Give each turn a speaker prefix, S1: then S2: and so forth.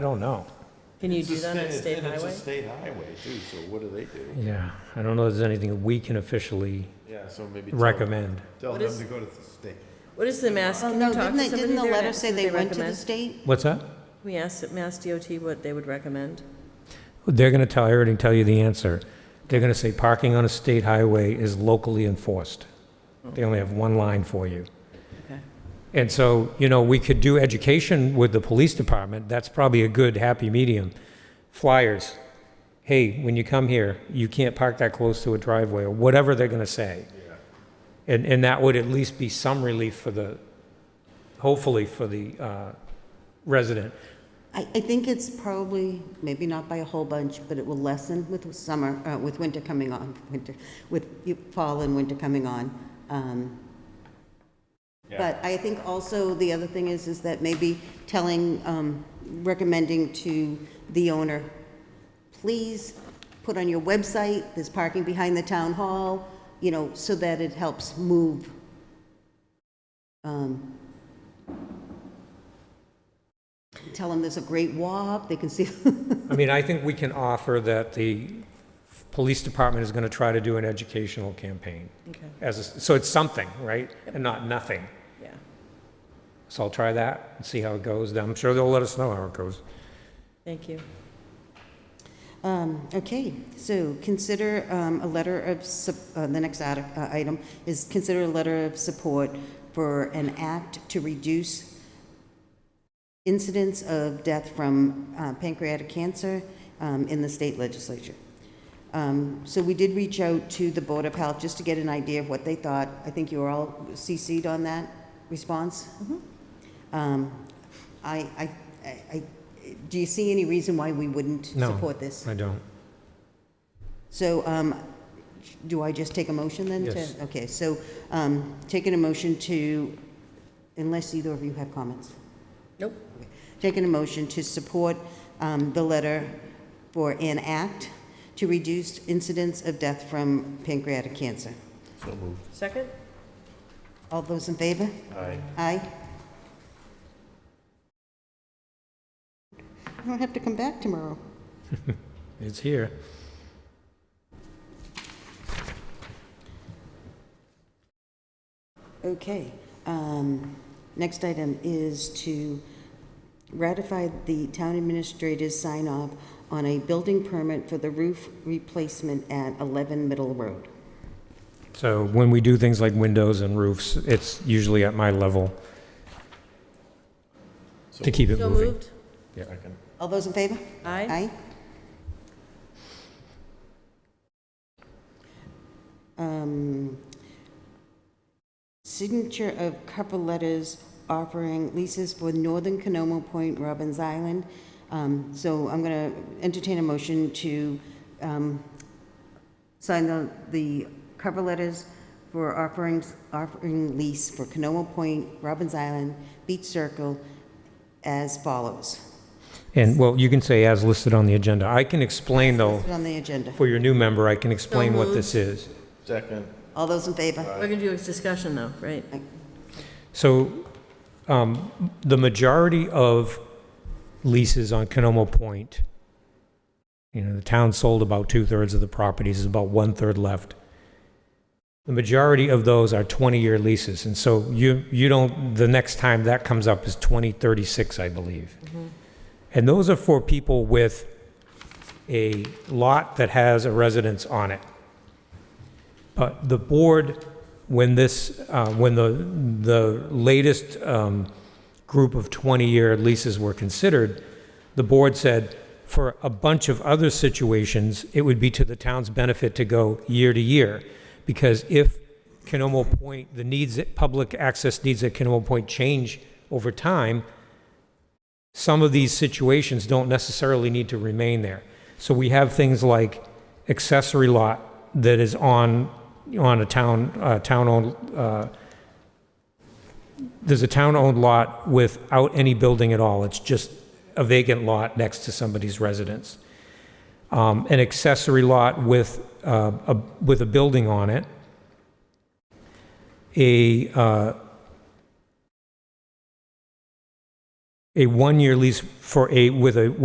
S1: I don't know.
S2: Can you
S3: It's a
S2: do that on a
S3: sta-
S2: state
S3: and
S2: highway?
S3: It's a state highway too, so what do they do?
S1: Yeah, I don't know if there's anything we can officially
S3: Yeah, so maybe. tell-
S1: recommend.
S3: Tell
S2: What
S3: them
S2: is-
S3: to go to the state.
S2: What is the Mass,
S4: Oh,
S2: can you
S4: no,
S2: talk
S4: didn't
S2: to
S4: they,
S2: somebody
S4: didn't the
S2: there and
S4: letter
S2: ask
S4: say
S2: what
S4: they went to the
S2: recommend?
S4: state?
S1: What's that?
S2: Can We asked at Mass DOT what they would recommend.
S1: They're going to tell, I already tell you the answer. They're going to say parking on a state highway is locally enforced. They only have one line for you.
S2: Okay.
S1: And so, you know, we could do education with the police department. That's probably a good happy medium. Flyers. Hey, when you come here, you can't park that close to a driveway or whatever they're going to say. And, and that would at least be some relief for the, hopefully for the uh, resident.
S4: I, I think it's probably, maybe not by a whole bunch, but it will lessen with summer, uh, with winter coming on, winter, with you- fall and winter coming on. Um, But I think also the other thing is, is that maybe telling, um, recommending to the owner, please put on your website, there's parking behind the town hall, you know, so that it helps move. um, Tell them there's a great walk, they can see,
S1: I mean, I think we can offer that the police department is going to try to do an educational campaign
S2: Okay,
S1: as, a- so it's something, right? And not nothing.
S2: yeah.
S1: So I'll try that and see how it goes. I'm sure they'll let us know how it goes.
S2: Thank you.
S4: Um, Okay, so consider um, a letter of, sup- uh, the next arti- uh, item is consider a letter of support for an act to reduce incidence of death from uh, pancreatic cancer um, in the state legislature. Um, So we did reach out to the Board of Health just to get an idea of what they thought. I think you were all CC'd on that response? Um, I, I, I- I, do you see any reason why we wouldn't
S1: No.
S4: support this?
S1: I don't.
S4: So, um, do I just take a motion then? to-
S1: Yes.
S4: Okay, so, um, taking a motion to, unless either of you have comments,
S2: Nope.
S4: taking a motion to support, um, the letter for an act to reduce incidence of death from pancreatic cancer.
S3: So moved.
S2: Second?
S4: All those in favor?
S3: Aye.
S4: Aye. I don't have to come back tomorrow.
S1: It's here.
S4: Okay, um, next item is to ratify the town administrator's sign-off on a building permit for the roof replacement at 11 Middle Road.
S1: So when we do things like windows and roofs, it's usually at my level
S3: So
S1: to keep it
S2: So
S1: moving.
S2: moved?
S3: Second.
S4: All those in favor?
S2: Aye.
S4: Aye. Um, Signature of cover letters offering leases for Northern Canoma Point, Robbins Island. Um, So I'm going to entertain a motion to um, sign the, the cover letters for offerings, offering lease for Canoma Point, Robbins Island, Beach Circle as follows.
S1: And, well, you can say as listed on the agenda. I can explain though,
S4: Put it on the agenda.
S1: for your new member, I can explain what this is.
S3: Second.
S4: All those in favor?
S2: We're gonna do a discussion though, right?
S1: So um, the majority of leases on Canomo Point, you know, the town sold about two-thirds of the properties, there's about one-third left. The majority of those are 20-year leases, and so you, you don't, the next time that comes up is 2036, I believe. And those are for people with a lot that has a residence on it. But the board, when this, uh, when the, the latest um, group of 20-year leases were considered, the board said, for a bunch of other situations, it would be to the town's benefit to go year to year, because if Canomo Point, the needs, public access needs at Canomo Point change over time, some of these situations don't necessarily need to remain there. So we have things like accessory lot that is on, on a town, uh, town-owned, uh, there's a town-owned lot without any building at all. It's just a vacant lot next to somebody's residence. Um, an accessory lot with, uh, a, with a building on it. A, uh, a one-year lease for a, with a,